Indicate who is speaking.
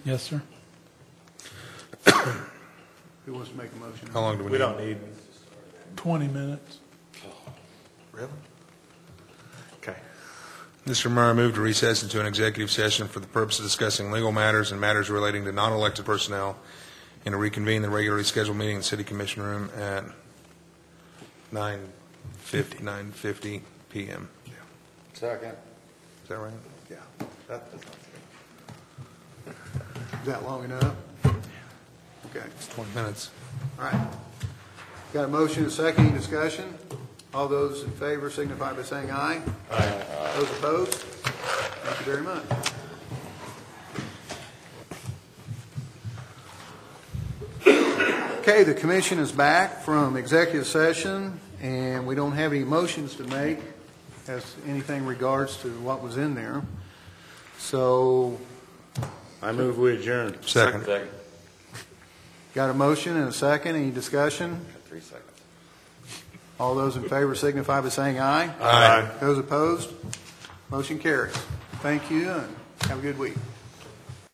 Speaker 1: Yes, sir.
Speaker 2: Who wants to make a motion?
Speaker 3: How long do we need?
Speaker 4: We don't need,
Speaker 1: 20 minutes.
Speaker 3: Really?
Speaker 4: okay.
Speaker 3: Mr. Mayor, I move to recess into an executive session for the purpose of discussing legal matters and matters relating to non-elected personnel, and to reconvene the regularly scheduled meeting in the City Commission Room at 9:50, 9:50 PM.
Speaker 2: Second.
Speaker 3: Is that right?
Speaker 2: Yeah. Is that long enough? Okay,
Speaker 3: It's 20 minutes.
Speaker 2: all right. Got a motion, and a second, any discussion? All those in favor signify by saying aye. Aye. Those opposed? Thank you very much. Okay, the commission is back from executive session, and we don't have any motions to make as anything regards to what was in there. So,
Speaker 4: I move we adjourn.
Speaker 3: Second.
Speaker 2: got a motion and a second, any discussion?
Speaker 5: Three seconds.
Speaker 2: All those in favor signify by saying aye.
Speaker 3: Aye.
Speaker 2: Those opposed, motion carries. Thank you, and have a good week.